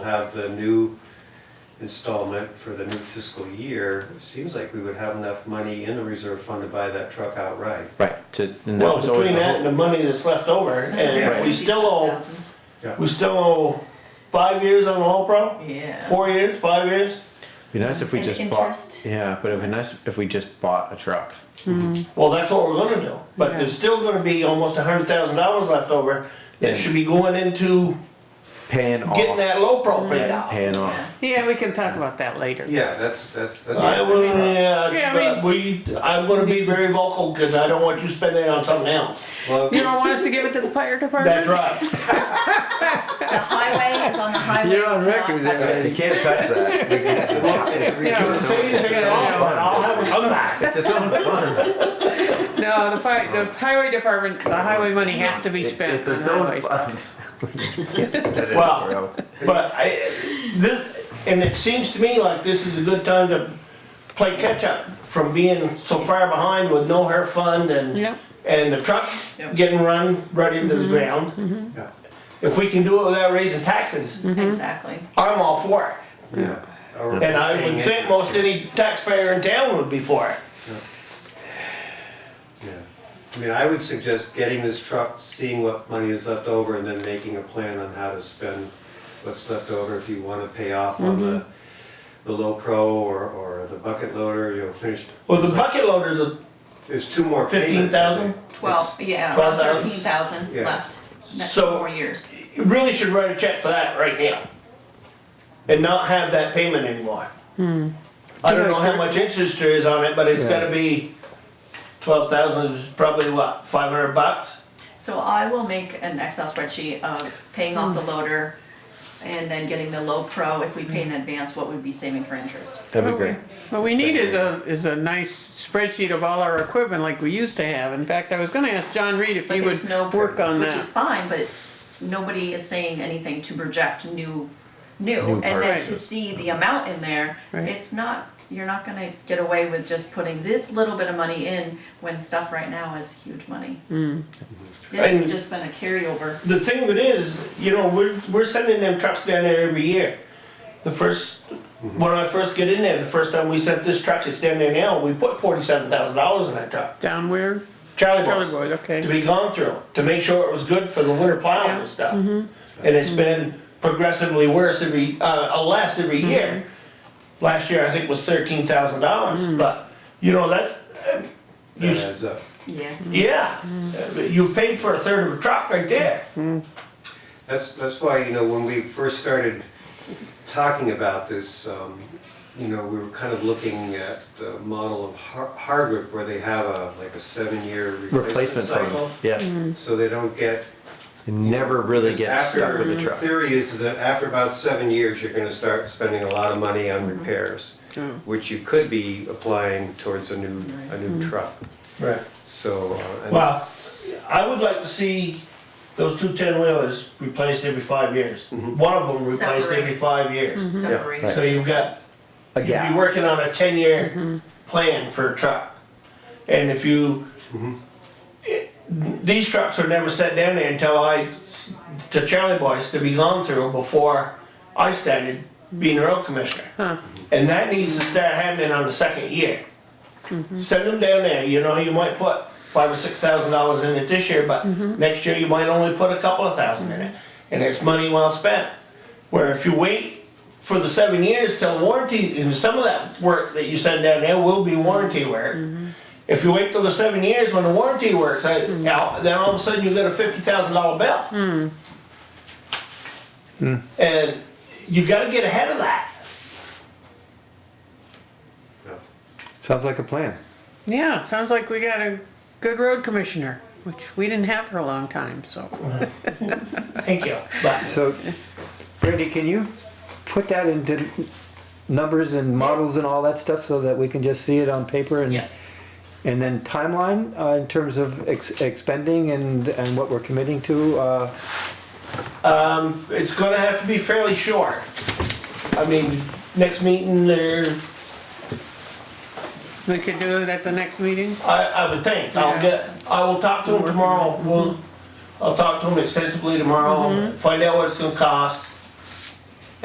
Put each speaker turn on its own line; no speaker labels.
We'll have the new installment for the new fiscal year. Seems like we would have enough money in the reserve fund to buy that truck outright.
Right, to, and that
Well,
was always
between
the
that and the
hope.
money that's left over, and
Right.
we still owe, we still owe five years on the whole problem?
Yeah.
Four years, five years?
Be nice if we
And
just bought,
interest.
yeah, but it'd be nice if we just bought a truck.
Well, that's what we're gonna do, but
Yeah.
there's still gonna be almost a hundred thousand dollars left over
Yeah.
that should be going into
Paying
getting
off,
that low pro paid out.
paying
Yeah.
off.
Yeah, we can talk about that later.
Yeah, that's, that's, that's.
I will,
Yeah,
yeah,
I
but
mean-
we, I'm gonna be very vocal, cause I don't want you spending it on something else.
Well,
You don't want us to give it to the fire department?
That's right.
The highway is on the highway.
You're on record
Not
there,
touching.
man.
You can't touch that.
Yeah, say this again, I'll I'll have a comeback.
It's its own fund.
No, the fi, the highway department, the highway money has to be
It-
spent
It's
on
its own
highways.
fund.
Well,
Well,
But I, this, and it seems to me like this is a good time to play catch up from being so far behind with no hair fund and,
Yep.
and the truck
Yep.
getting run right into the ground.
yeah,
If we can do it without raising taxes,
Exactly.
I'm all for it.
yeah. Or
And I
paying
would think
interest.
most any taxpayer in town would be for it.
Yeah. I mean, I would suggest getting this truck, seeing what money is left over, and then making a plan on how to spend what's left over if you wanna pay off on the, the low pro or, or the bucket loader, you know, finish.
Well, the bucket loader's a,
There's two more payments. I think.
15,000?
Twelve, yeah, around
12,000.
thirteen thousand
Yeah.
left. That's
So-
four years.
you really should write a check for that right now. And not have that payment anymore. I don't know how much interest there is on it, but it's gotta be twelve thousand, is probably what, five hundred bucks?
So I will make an Excel spreadsheet of paying off
Hmm.
the loader and then getting the low pro, if we pay in advance, what we'd be saving for interest.
That'd be great.
What we need is a, is a nice spreadsheet of all our equipment like we used to have. In fact, I was gonna ask John Reed if
But
he
there's no,
would work on
which is
that.
fine, but nobody is saying anything to project new, new. And then to
purchases.
see the amount in there,
Right.
it's not, you're not gonna get away with just putting this little bit of money in when stuff right now is huge money. This
And-
has just been a carryover.
The thing of it is, you know, we're, we're sending them trucks down there every year. The first, when I first get in there, the first time we sent this truck, it's down there now, we put forty-seven thousand dollars in that truck.
Down where?
Charlie
Charlie
Boys.
Boyd,
to
okay.
be gone through, to make sure it was good for the winter plowing
Yeah.
and stuff. And it's been progressively worse every, uh, uh, less every
Mm-hmm.
year. Last year, I think was thirteen thousand dollars,
Mm-hmm.
but, you know, that's, uh, you,
That
s-
adds up.
Yeah.
yeah, uh,
Mm-hmm.
you paid for a third of a truck right there.
That's, that's why, you know, when we first started talking about this, um, you know, we were kind of looking at the model of Har- Hardwick where they have a, like a seven-year replacement
Replacement
cycle.
fund, yeah.
So they don't get
You Never really get
Because
stuck with a
after-
truck.
Theory is that after about seven years, you're gonna start spending a lot of money on
Mm-hmm.
repairs, which you could be applying towards a new, a new truck,
Mm-hmm.
Right.
so. uh, and-
Well, I would like to see those two ten-wheelers replaced every five years. One of them replaced
Separate.
every five years.
Separate
So you've got
systems.
A
You'd be
gap.
working on a ten-year plan for a truck. And if you, It- these trucks are never set down there until I, s- to Charlie Boys, to be gone through before I started being a road commissioner. And that needs to start happening on the second year. Send them down there, you know, you might put five or six thousand dollars in it this year, but next year you might only put a couple of thousand in it. And it's money well spent. Where if you wait for the seven years till warranty, and some of that work that you send down there will be warranty work. If you wait till the seven years when the warranty works, I- now, then all of a sudden you get a fifty thousand dollar bill. And you gotta get ahead of that.
yeah.
Sounds like a plan.
Yeah, sounds like we got a good road commissioner, which we didn't have for a long time, so.
Thank you. But
So, Brandy, can you put that into numbers and models and all that stuff so that we can just see it on paper and
Yes,
and then timeline uh, in terms of ex- expending and and what we're committing to. Uh,
it's gonna have to be fairly short. I mean, next meeting there,
We could do it at the next meeting?
I, I would think, I'll
Yeah.
get, I will talk to him tomorrow, we'll, I'll talk to him extensively tomorrow, find out what it's gonna cost.